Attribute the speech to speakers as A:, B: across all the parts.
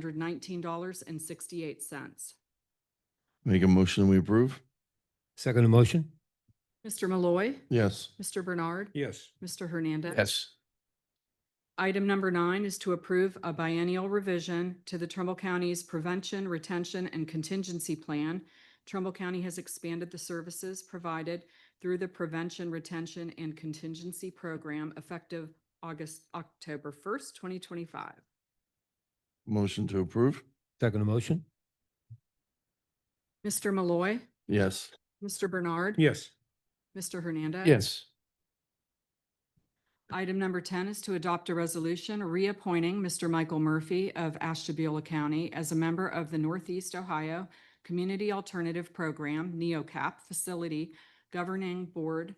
A: hundred nineteen dollars and sixty-eight cents.
B: Make a motion, we approve?
C: Second motion?
A: Mr. Malloy,
B: Yes.
A: Mr. Bernard,
C: Yes.
A: Mr. Hernandez.
D: yes,
A: Item number nine is to approve a biennial revision to the Trumbull County's Prevention, Retention, and Contingency Plan. Trumbull County has expanded the services provided through the Prevention, Retention, and Contingency Program effective August, October first, twenty twenty-five.
B: Motion to approve?
C: Second motion?
A: Mr. Malloy,
B: Yes.
A: Mr. Bernard.
C: Yes.
A: Mr. Hernandez.
D: yes,
A: Item number 10 is to adopt a resolution reappointing Mr. Michael Murphy of Ashtabula County as a member of the Northeast Ohio Community Alternative Program, E NEOCAP Facility Governing Board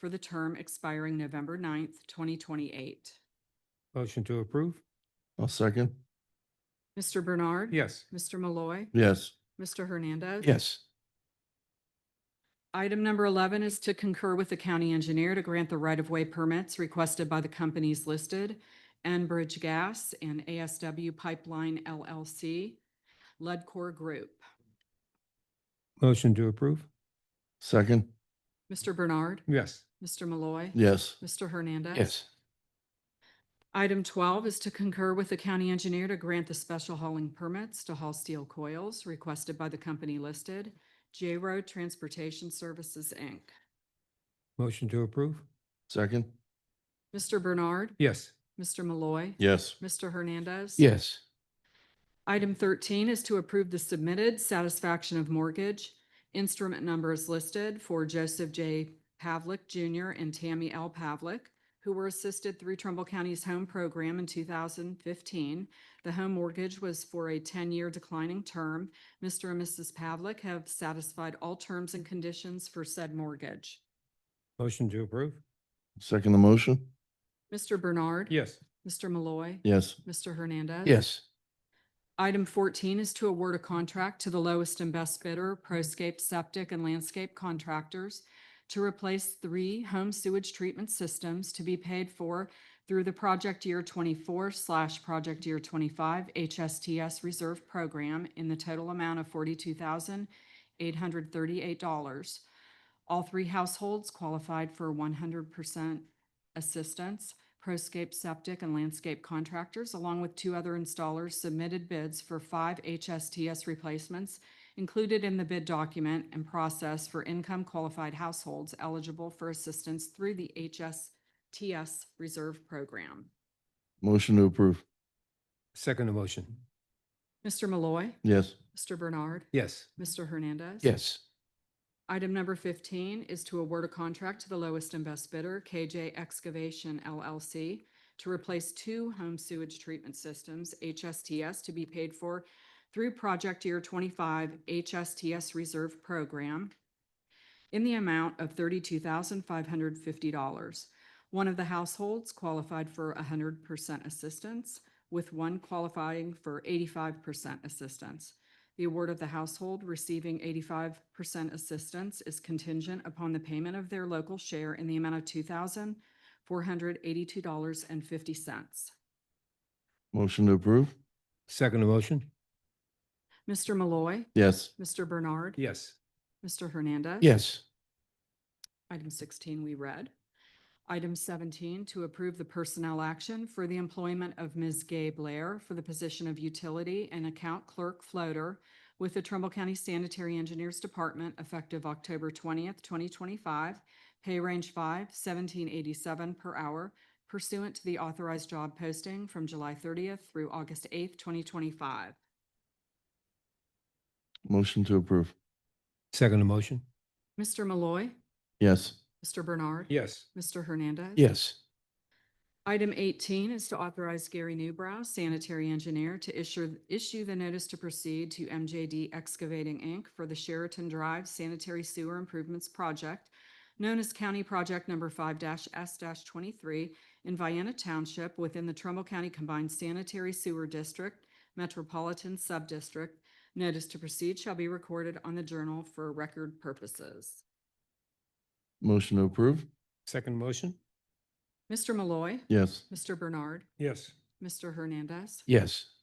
A: for the term expiring November 9th, 2028.
C: Motion to approve?
B: I'll second.
A: Mr. Bernard.
C: Yes.
A: Mr. Malloy.
B: Yes.
A: Mr. Hernandez.
D: yes,
A: Item number 11 is to concur with the county engineer to grant the right-of-way permits requested by the companies listed, Enbridge Gas and ASW Pipeline LLC, Ledcor Group.
C: Motion to approve?
B: Second?
A: Mr. Bernard,
C: Yes.
A: Mr. Malloy,
B: Yes.
A: Mr. Hernandez.
D: yes,
A: Item 12 is to concur with the county engineer to grant the special hauling permits to haul steel coils requested by the company listed, J-Road Transportation Services, Inc.
C: Motion to approve?
B: Second?
A: Mr. Bernard,
C: Yes.
A: Mr. Malloy,
B: Yes.
A: Mr. Hernandez.
D: yes,
A: Item thirteen is to approve the submitted satisfaction of mortgage. Instrument number is listed for Joseph J. Pavlik Jr. and Tammy L. Pavlik, who were assisted through Trumbull County's home program in two thousand fifteen. The home mortgage was for a ten-year declining term. Mr. and Mrs. Pavlik have satisfied all terms and conditions for said mortgage.
C: Motion to approve?
B: Second the motion?
A: Mr. Bernard.
C: Yes.
A: Mr. Malloy.
B: Yes.
A: Mr. Hernandez.
D: yes,
A: Item fourteen is to award a contract to the lowest and best bidder, Proscape Septic and Landscape Contractors, to replace three home sewage treatment systems to be paid for through the project year twenty-four slash project year twenty-five HSTS Reserve Program in the total amount of forty-two thousand eight hundred thirty-eight dollars. All three households qualified for one hundred percent assistance. Proscape Septic and Landscape Contractors, along with two other installers, submitted bids for five HSTS replacements included in the bid document and process for income qualified households eligible for assistance through the HSTS Reserve Program.
B: Motion to approve?
C: Second motion?
A: Mr. Malloy,
B: Yes.
A: Mr. Bernard,
C: Yes.
A: Mr. Hernandez.
D: yes,
A: Item number fifteen is to award a contract to the lowest and best bidder, KJ Excavation LLC, to replace two home sewage treatment systems, HSTS, to be paid for through project year twenty-five HSTS Reserve Program in the amount of thirty-two thousand five hundred fifty dollars. One of the households qualified for hundred percent assistance, with one qualifying for eighty-five percent assistance. The award of the household receiving eighty-five percent assistance is contingent upon the payment of their local share in the amount of two thousand four hundred eighty-two dollars and fifty cents.
B: Motion to approve?
C: Second motion?
A: Mr. Malloy,
B: Yes.
A: Mr. Bernard,
C: Yes.
A: Mr. Hernandez.
D: yes,
A: Item sixteen, we read. Item seventeen, to approve the personnel action for the employment of Ms. Gay Blair for the position of utility and account clerk floater with the Trumbull County Sanitary Engineers Department effective October twentieth, twenty twenty-five, pay range five, seventeen eighty-seven per hour pursuant to the authorized job posting from July thirtieth through August eighth, twenty twenty-five.
B: Motion to approve?
C: Second motion?
A: Mr. Malloy,
B: Yes.
A: Mr. Bernard.
C: Yes.
A: Mr. Hernandez.
D: yes,
A: Item eighteen is to authorize Gary Newbrow, sanitary engineer, to issue, issue the notice to proceed to MJD Excavating, Inc. for the Sheraton Drive Sanitary Sewer Improvements Project, known as County Project Number five S twenty-three in Vienna Township within the Trumbull County Combined Sanitary Sewer District Metropolitan Subdistrict. Notice to proceed shall be recorded on the journal for record purposes.
B: Motion to approve?
C: Second motion?
A: Mr. Malloy,
B: Yes.
A: Mr. Bernard,
C: Yes.
A: Mr. Hernandez.
D: yes,